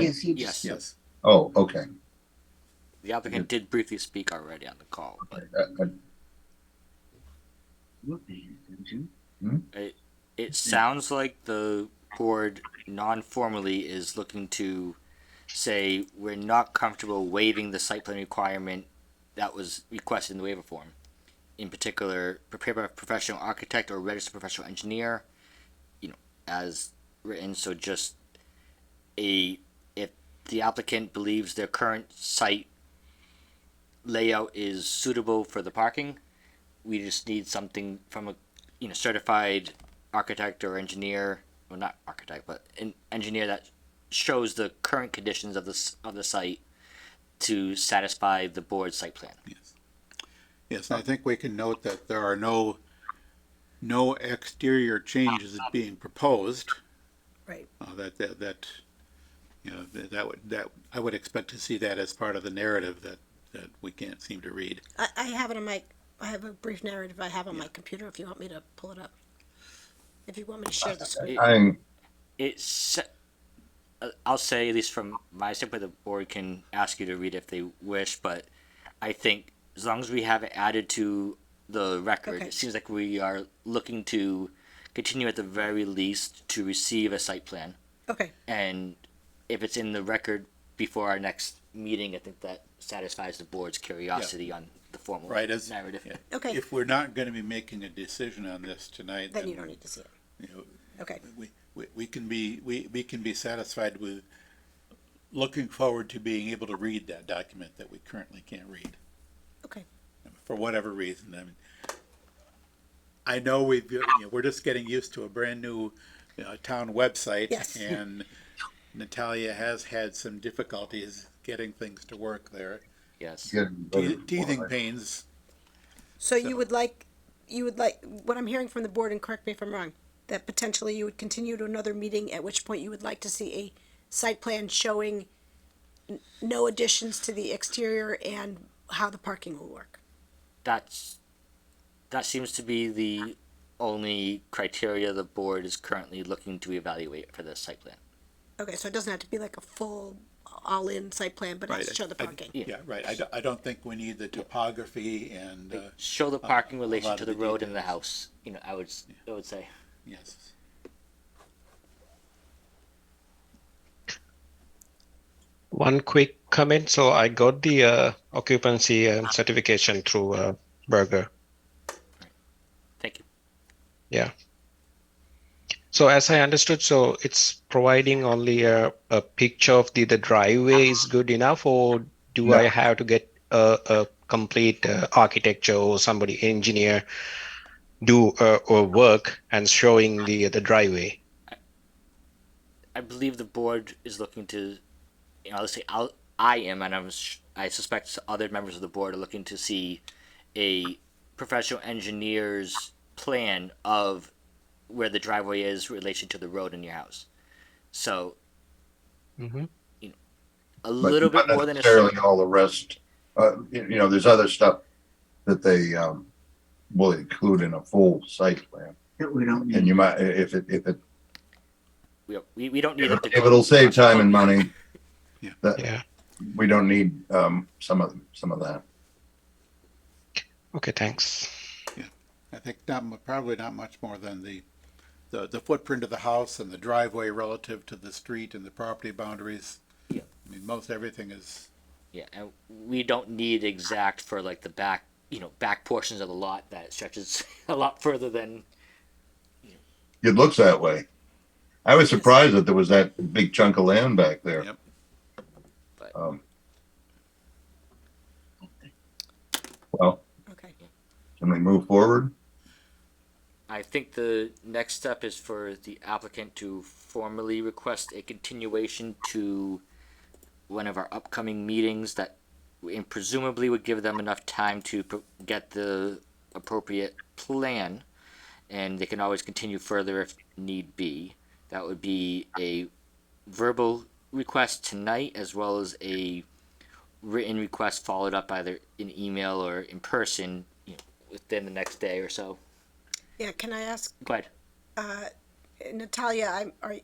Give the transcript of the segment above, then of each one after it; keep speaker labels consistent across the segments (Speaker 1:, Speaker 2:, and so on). Speaker 1: Yes, he just-
Speaker 2: Yes,
Speaker 3: Yes.
Speaker 1: Oh, okay.
Speaker 2: the applicant did briefly speak already on the call, but
Speaker 1: Uh, uh,
Speaker 2: it sounds like the board non-formally is looking to say, we're not comfortable waiving the site plan requirement that was requested in the waiver form. In particular, prepared by a professional architect or registered professional engineer, you know, as written, so just a, if the applicant believes their current site layout is suitable for the parking, we just need something from a, you know, certified architect or engineer, well, not architect, but an engineer that shows the current conditions of this of the site to satisfy the board's site plan.
Speaker 3: Yes, and I think we can note that there are no, no exterior changes being proposed.
Speaker 4: Right.
Speaker 3: Uh, that, that, that, you know, that that would, that, I would expect to see that as part of the narrative that, that we can't seem to read.
Speaker 4: I, I have it on my, I have a brief narrative I have on my computer if you want me to pull it up. If you want me to share the screen.
Speaker 1: I'm,
Speaker 2: It's uh, I'll say at least from my standpoint, the board can ask you to read if they wish, but I think as long as we have it added to the record,
Speaker 4: Okay.
Speaker 2: it seems like we are looking to continue at the very least to receive a site plan.
Speaker 4: Okay,
Speaker 2: and if it's in the record before our next meeting, I think that satisfies the board's curiosity on the formal
Speaker 3: Right, as-
Speaker 2: narrative.
Speaker 3: yeah.
Speaker 4: okay,
Speaker 3: If we're not gonna be making a decision on this tonight,
Speaker 4: then
Speaker 3: then,
Speaker 4: you don't
Speaker 3: you
Speaker 4: need to see it.
Speaker 3: know,
Speaker 4: Okay,
Speaker 3: we, we, we can be, we, we can be satisfied with looking forward to being able to read that document that we currently can't read.
Speaker 4: okay,
Speaker 3: for whatever reason. I mean, I know we've, you know, we're just getting used to a brand new you know, town website,
Speaker 4: Yes.
Speaker 3: and Natalia has had some difficulties getting things to work there.
Speaker 2: Yes.
Speaker 1: getting
Speaker 3: Te- teething pains.
Speaker 4: so you
Speaker 3: So-
Speaker 4: would like, you would like, what I'm hearing from the board, and correct me if I'm wrong, that potentially you would continue to another meeting, at which point you would like to see a site plan showing n- no additions to the exterior and how the parking will work.
Speaker 2: That's, that seems to be the only criteria the board is currently looking to evaluate for this site plan.
Speaker 4: Okay, so it doesn't have to be like a full, all-in site plan, but it has to
Speaker 3: Right,
Speaker 4: show the
Speaker 3: I- I-
Speaker 4: parking.
Speaker 3: Yeah, right. I, do- I don't think we need the topography and, uh,
Speaker 2: Show the
Speaker 3: a-
Speaker 2: parking
Speaker 3: a
Speaker 2: relation
Speaker 3: lot
Speaker 2: to
Speaker 3: of
Speaker 2: the
Speaker 3: the
Speaker 2: road and the house, you know, I would, s- I would say.
Speaker 3: yes.
Speaker 5: One quick comment. So I got the uh, occupancy um, certification through uh, Burger.
Speaker 2: Thank you.
Speaker 5: So as I understood, so it's providing only a, a picture of the, the driveway is good enough, or do I
Speaker 1: No.
Speaker 5: have to get a, a complete uh, architecture or somebody engineer do uh, or work and showing the the driveway?
Speaker 2: I believe the board is looking to, you know, let's say I'll, I am, and I'm, sh- I suspect other members of the board are looking to see a professional engineer's plan of where the driveway is in relation to the road in your house. So
Speaker 5: Mm-hmm.
Speaker 2: a little bit more than a
Speaker 1: Necessarily all the rest, uh, you you know, there's other stuff that they, um, will include in a full site plan.
Speaker 6: we don't
Speaker 1: And you might, i- if it, if it,
Speaker 2: we, we, we don't need it to
Speaker 1: if
Speaker 2: go-
Speaker 1: it'll save time and money.
Speaker 3: Yeah.
Speaker 1: That,
Speaker 5: Yeah.
Speaker 1: we don't need, um, some of, some of that.
Speaker 5: Okay. Thanks.
Speaker 3: I think not, mu- probably not much more than the, the, the footprint of the house and the driveway relative to the street and the property boundaries.
Speaker 2: Yeah.
Speaker 3: I mean, most everything is,
Speaker 2: Yeah, and we don't need exact for like the back, you know, back portions of the lot that stretches a lot further than
Speaker 1: It looks that way. I was surprised that there was that big chunk of land back there.
Speaker 3: Yep.
Speaker 2: But-
Speaker 1: Um. Well,
Speaker 4: Okay.
Speaker 1: can we move forward?
Speaker 2: I think the next step is for the applicant to formally request a continuation to one of our upcoming meetings that, and presumably would give them enough time to pro- get the appropriate plan. And they can always continue further if need be. That would be a verbal request tonight as well as a written request followed up either in email or in person, you know, within the next day or so.
Speaker 4: Yeah, can I ask,
Speaker 2: Go ahead.
Speaker 4: uh, Natalia, I'm, are,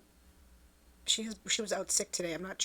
Speaker 4: she is, she was out sick today, I'm not